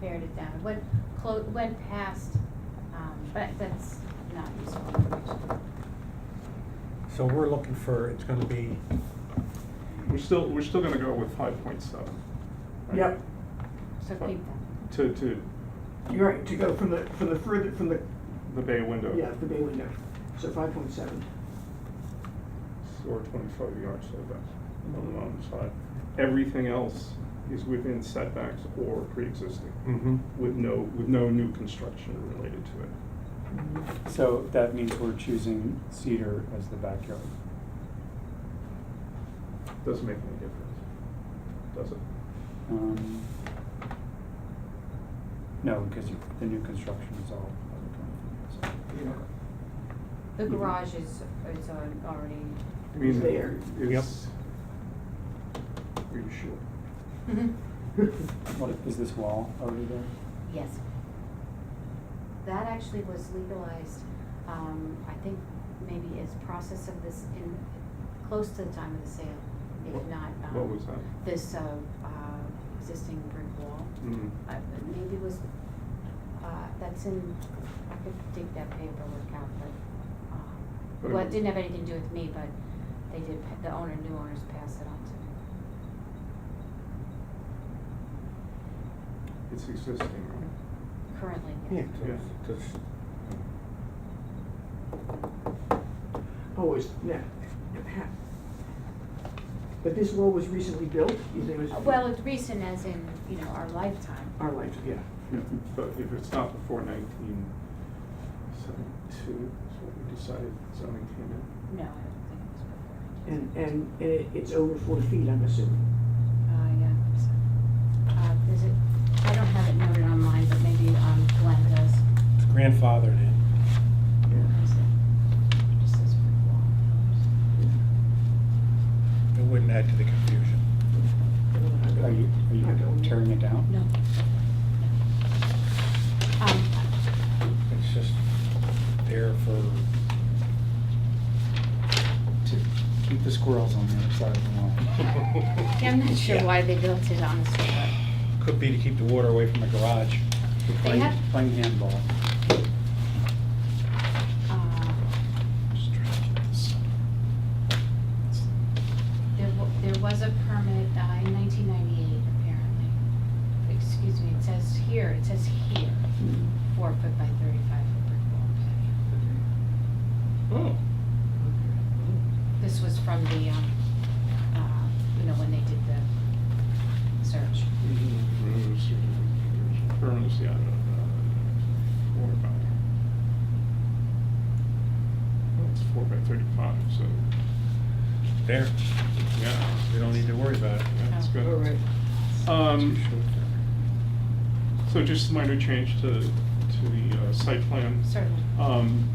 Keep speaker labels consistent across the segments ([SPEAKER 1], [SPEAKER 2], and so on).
[SPEAKER 1] pared it down, went clo- went past, um, but that's not useful information.
[SPEAKER 2] So we're looking for, it's gonna be,
[SPEAKER 3] We're still, we're still gonna go with five point seven.
[SPEAKER 4] Yep,
[SPEAKER 1] So keep that.
[SPEAKER 3] To, to
[SPEAKER 4] you're right, to go from the, from the further, from the,
[SPEAKER 3] the bay window.
[SPEAKER 4] yeah, the bay window, so five point seven.
[SPEAKER 3] Or twenty-five yards, so that's on the mountain side. Everything else is within setbacks or pre-existing,
[SPEAKER 2] mm-hmm,
[SPEAKER 3] with no, with no new construction related to it.
[SPEAKER 5] So that means we're choosing cedar as the backyard.
[SPEAKER 3] Doesn't make any difference, does it?
[SPEAKER 5] Um, No, because the new construction is all other kind of thing,
[SPEAKER 1] The garage is, is al- already.
[SPEAKER 3] I mean,
[SPEAKER 4] There.
[SPEAKER 3] it's. Are you sure? Mm-hmm.
[SPEAKER 5] so. What, is this wall already there?
[SPEAKER 1] Yes. That actually was legalized, um, I think maybe as process of this in, close to the time of the sale, if
[SPEAKER 3] What-
[SPEAKER 1] not, um.
[SPEAKER 3] What was that?
[SPEAKER 1] This, uh, uh, existing brick wall.
[SPEAKER 3] Mm.
[SPEAKER 1] I- Maybe it was, uh, that's in, I could dig that paperwork out, but, um,
[SPEAKER 3] But it
[SPEAKER 1] well, it
[SPEAKER 3] was-
[SPEAKER 1] didn't have anything to do with me, but they did, pa- the owner, new owners passed it on to me.
[SPEAKER 3] It's existing, right?
[SPEAKER 1] Currently,
[SPEAKER 2] yeah,
[SPEAKER 1] yes.
[SPEAKER 2] just, just,
[SPEAKER 4] Always, yeah. But this wall was recently built, you think it was?
[SPEAKER 1] Uh, Well, it's recent as in, you know, our lifetime.
[SPEAKER 4] Our life, yeah.
[SPEAKER 3] Yeah, But if it's not before nineteen seventy-two, is what we decided zoning came in.
[SPEAKER 1] No, I don't think it was before.
[SPEAKER 4] And, and, and it- it's over four feet, I'm assuming.
[SPEAKER 1] Uh, yeah, so, uh, is it, I don't have it noted on mine, but maybe, um, Glenn does.
[SPEAKER 2] it's grandfathered in.
[SPEAKER 1] Where is it? Just says brick wall.
[SPEAKER 2] It wouldn't add to the confusion.
[SPEAKER 5] Are you, are you tearing it down?
[SPEAKER 1] No. Um,
[SPEAKER 2] It's just there for,
[SPEAKER 5] To keep the squirrels on the other side of the wall.
[SPEAKER 1] Yeah, I'm not sure
[SPEAKER 2] Yeah.
[SPEAKER 1] why they built it, honestly,
[SPEAKER 2] could be to keep the water away from the garage.
[SPEAKER 5] We're
[SPEAKER 1] They
[SPEAKER 5] Playing,
[SPEAKER 1] have-
[SPEAKER 5] playing handball.
[SPEAKER 1] but, uh,
[SPEAKER 2] Just trying to keep this-
[SPEAKER 1] there, wa- there was a permit uh, in nineteen ninety-eight, apparently. Excuse me, it says here, it says here, four foot by thirty-five foot brick wall patio.
[SPEAKER 2] Oh,
[SPEAKER 1] This was from the, um, uh, you know, when they did the search.
[SPEAKER 3] Rooms, rooms, yeah, I don't know. Four by. Well, it's four by thirty-five, so,
[SPEAKER 2] there,
[SPEAKER 3] yeah.
[SPEAKER 2] we don't need to worry about it.
[SPEAKER 3] Yeah, it's
[SPEAKER 1] Oh.
[SPEAKER 3] good.
[SPEAKER 2] Too
[SPEAKER 3] Um,
[SPEAKER 2] short there.
[SPEAKER 3] so just a minor change to, to the uh, site plan.
[SPEAKER 1] Certainly.
[SPEAKER 3] Um,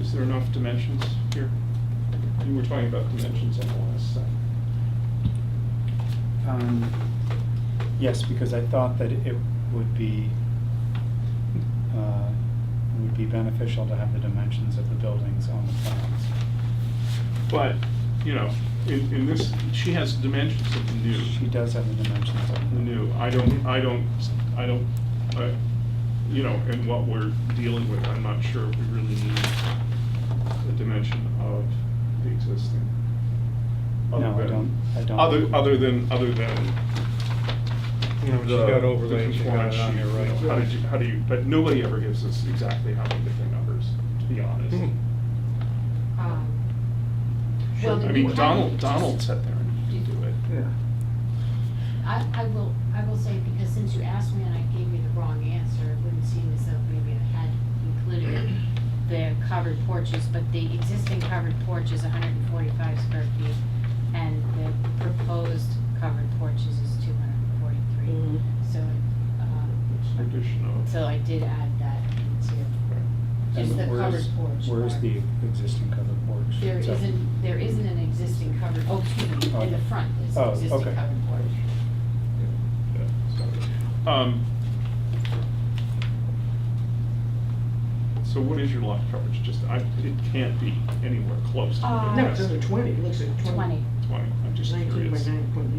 [SPEAKER 3] Is there enough dimensions here? You were talking about dimensions on the last site.
[SPEAKER 5] Um, Yes, because I thought that it would be, uh, it would be beneficial to have the dimensions of the buildings on the plans.
[SPEAKER 3] But, you know, in, in this, she has dimensions of the new.
[SPEAKER 5] She does have the dimensions of
[SPEAKER 3] The
[SPEAKER 5] the
[SPEAKER 3] new, I don't, I don't, I don't, I, you know, and what we're dealing with, I'm not sure if we really need the dimension of the existing. Other
[SPEAKER 5] No, I
[SPEAKER 3] than-
[SPEAKER 5] don't- I don't.
[SPEAKER 3] Oh, Other, other than, other than
[SPEAKER 2] You know, she
[SPEAKER 3] the-
[SPEAKER 2] got
[SPEAKER 3] the
[SPEAKER 2] overlaid, she got
[SPEAKER 3] compliance
[SPEAKER 2] it on
[SPEAKER 3] sheet,
[SPEAKER 2] there,
[SPEAKER 3] you know,
[SPEAKER 2] right?
[SPEAKER 3] How did you, how do you, but nobody ever gives us exactly how they get their numbers, to be honest.
[SPEAKER 2] Hmm.
[SPEAKER 1] Um, Well,
[SPEAKER 3] I
[SPEAKER 1] you
[SPEAKER 3] mean,
[SPEAKER 1] have-
[SPEAKER 3] Donald, Donald sat there and he do it.
[SPEAKER 4] Yeah.
[SPEAKER 1] I, I will, I will say, because since you asked me and I gave you the wrong answer, it wouldn't seem as though maybe I had included the covered porches, but the existing covered porch is hundred and forty-five square feet, and the proposed covered porches is two hundred and forty-three.
[SPEAKER 4] Mhm.
[SPEAKER 1] So, um,
[SPEAKER 3] It's additional.
[SPEAKER 1] so I did add that into,
[SPEAKER 5] And
[SPEAKER 1] just the covered
[SPEAKER 5] where's-
[SPEAKER 1] porch.
[SPEAKER 5] Where's
[SPEAKER 1] part.
[SPEAKER 5] the existing covered porch?
[SPEAKER 1] There
[SPEAKER 5] Is that-
[SPEAKER 1] isn't, there isn't an existing covered, oh, excuse me, in the front is an
[SPEAKER 5] Oh,
[SPEAKER 1] existing
[SPEAKER 5] okay.
[SPEAKER 1] covered porch.
[SPEAKER 3] Um, So what is your lot coverage? Just, I, it can't be anywhere close to
[SPEAKER 1] Uh,
[SPEAKER 4] No, it's
[SPEAKER 3] the
[SPEAKER 4] under twenty, it looks like twenty.
[SPEAKER 1] Twenty.
[SPEAKER 3] Twenty, I'm just
[SPEAKER 4] Nineteen by
[SPEAKER 3] curious.
[SPEAKER 4] nine point